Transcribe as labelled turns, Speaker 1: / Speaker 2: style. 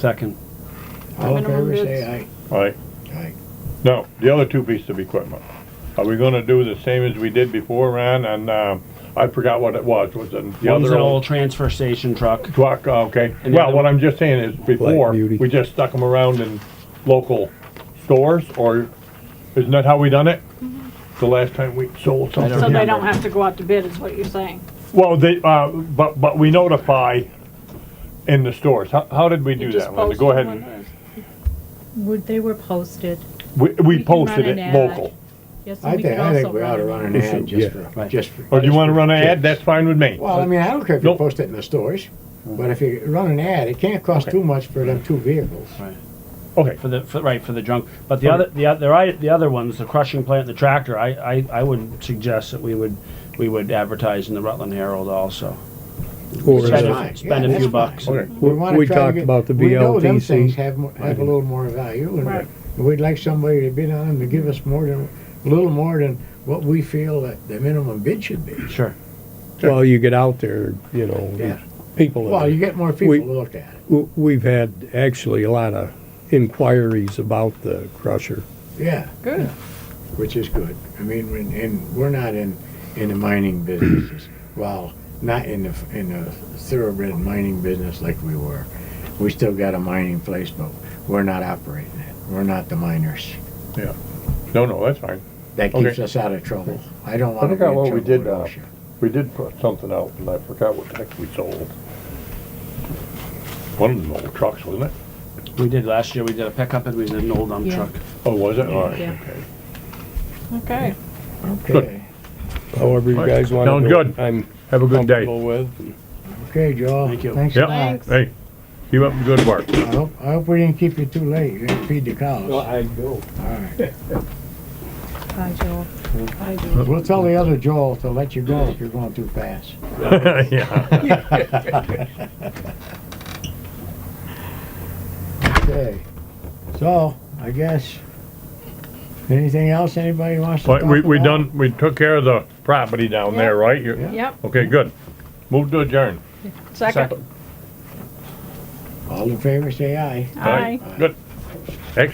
Speaker 1: Second.
Speaker 2: All in
Speaker 3: Minimum
Speaker 2: favor, say
Speaker 3: bids.
Speaker 2: aye.
Speaker 4: Right,
Speaker 2: Aye.
Speaker 4: now, the other two pieces of equipment, are we gonna do the same as we did before, Ron, and, um, I forgot what it was, was it the
Speaker 1: One's
Speaker 4: other
Speaker 1: an
Speaker 4: old
Speaker 1: old transfer station truck.
Speaker 4: truck, okay,
Speaker 1: And the
Speaker 4: well,
Speaker 1: other-
Speaker 4: what I'm just saying is, before,
Speaker 5: Beauty.
Speaker 4: we just stuck them around in local stores, or, isn't that how we done it? The last time we
Speaker 1: don't
Speaker 4: sold something.
Speaker 3: So they
Speaker 1: remember.
Speaker 3: Mm-hmm. don't have to go out to bid, is what you're saying?
Speaker 4: Well, they, uh, but, but we notify in the stores, how, how did we
Speaker 3: You
Speaker 4: do
Speaker 3: just
Speaker 4: that, Linda,
Speaker 3: post
Speaker 4: go ahead
Speaker 3: when
Speaker 4: and,
Speaker 3: it is.
Speaker 6: Would, they were posted.
Speaker 4: we, we
Speaker 6: you can run
Speaker 4: posted it
Speaker 6: an ad.
Speaker 4: local,
Speaker 6: Yes, and
Speaker 2: I
Speaker 6: we
Speaker 2: think,
Speaker 6: could
Speaker 2: I think
Speaker 6: also
Speaker 2: we ought to run an
Speaker 5: We should,
Speaker 2: ad just
Speaker 5: yeah.
Speaker 2: for,
Speaker 1: Right.
Speaker 2: just for.
Speaker 4: or do you wanna run an ad, that's
Speaker 2: just-
Speaker 4: fine with me.
Speaker 2: Well, I mean, I don't care if you
Speaker 4: Nope.
Speaker 2: post it in the stores, but if you run an ad, it can't cost too much for them two vehicles.
Speaker 4: Okay,
Speaker 1: for the for, right for the junk. But the other the other I- the other ones, the crushing plant, the tractor. I, I, I would suggest that we would we would advertise in the Rutland Herald also.
Speaker 5: Or
Speaker 1: Spend
Speaker 5: is it-
Speaker 1: a,
Speaker 2: fine.
Speaker 1: spend
Speaker 2: Yeah,
Speaker 1: a few
Speaker 2: that's fine.
Speaker 1: bucks.
Speaker 4: okay.
Speaker 2: We wanna
Speaker 5: We
Speaker 2: try to
Speaker 5: talked
Speaker 2: get-
Speaker 5: about the
Speaker 2: We know them
Speaker 5: BLTC.
Speaker 2: things have, mo- have a little more value,
Speaker 3: Right.
Speaker 2: and we'd like somebody to bid on them to give us more than, a little more than what we feel that the minimum bid should be.
Speaker 1: Sure.
Speaker 5: Well, uh, you get out there, you know,
Speaker 2: Yeah.
Speaker 5: people.
Speaker 2: Well, you get more people
Speaker 5: We-
Speaker 2: to look at it.
Speaker 5: W- We've had actually a lot of inquiries about the crusher.
Speaker 2: Yeah,
Speaker 3: Good.
Speaker 2: which is good. I mean, when- and we're not in, in the mining businesses. Well, not in the, in the thoroughbred mining business like we were. We still got a mining place, but we're not operating it. We're not the miners.
Speaker 4: No, no, that's fine.
Speaker 2: That keeps
Speaker 4: Okay.
Speaker 2: us out of trouble. I don't
Speaker 4: I
Speaker 2: want to be in
Speaker 4: forgot what
Speaker 2: trouble
Speaker 4: we
Speaker 2: with
Speaker 4: did, uh,
Speaker 2: OSHA.
Speaker 4: We did put something out, and I forgot what the heck we sold. One of them old trucks, wasn't it?
Speaker 1: We did last year. We did a pickup and we did an old dump
Speaker 6: Yeah.
Speaker 1: truck.
Speaker 4: Oh, was it? All right,
Speaker 6: Yeah.
Speaker 4: okay.
Speaker 3: Okay.
Speaker 2: Okay,
Speaker 5: However you
Speaker 4: Right.
Speaker 5: guys want to
Speaker 4: Sounds
Speaker 5: do it.
Speaker 4: good.
Speaker 5: I'm
Speaker 4: Have a good day.
Speaker 5: comfortable with.
Speaker 2: okay, Joel.
Speaker 1: Thank you.
Speaker 2: Thanks a
Speaker 4: Yep.
Speaker 2: lot.
Speaker 4: Hey, you up to good work.
Speaker 2: I hope, I hope we didn't keep you too late. You didn't feed the cows. All
Speaker 5: I go.
Speaker 2: right.
Speaker 6: Hi, Joel.
Speaker 2: We'll tell the other Joel to let you go if you're going too fast.
Speaker 4: Yeah.
Speaker 2: Okay, so, I guess, anything else anybody wants to talk
Speaker 4: But we,
Speaker 2: about?
Speaker 4: we done, we took care of the property down there, right? You-
Speaker 2: Yeah.
Speaker 3: Yep,
Speaker 4: Okay, good. Move to adjourn.
Speaker 3: second.
Speaker 2: All in favor, say aye.
Speaker 3: Aye.
Speaker 4: Good.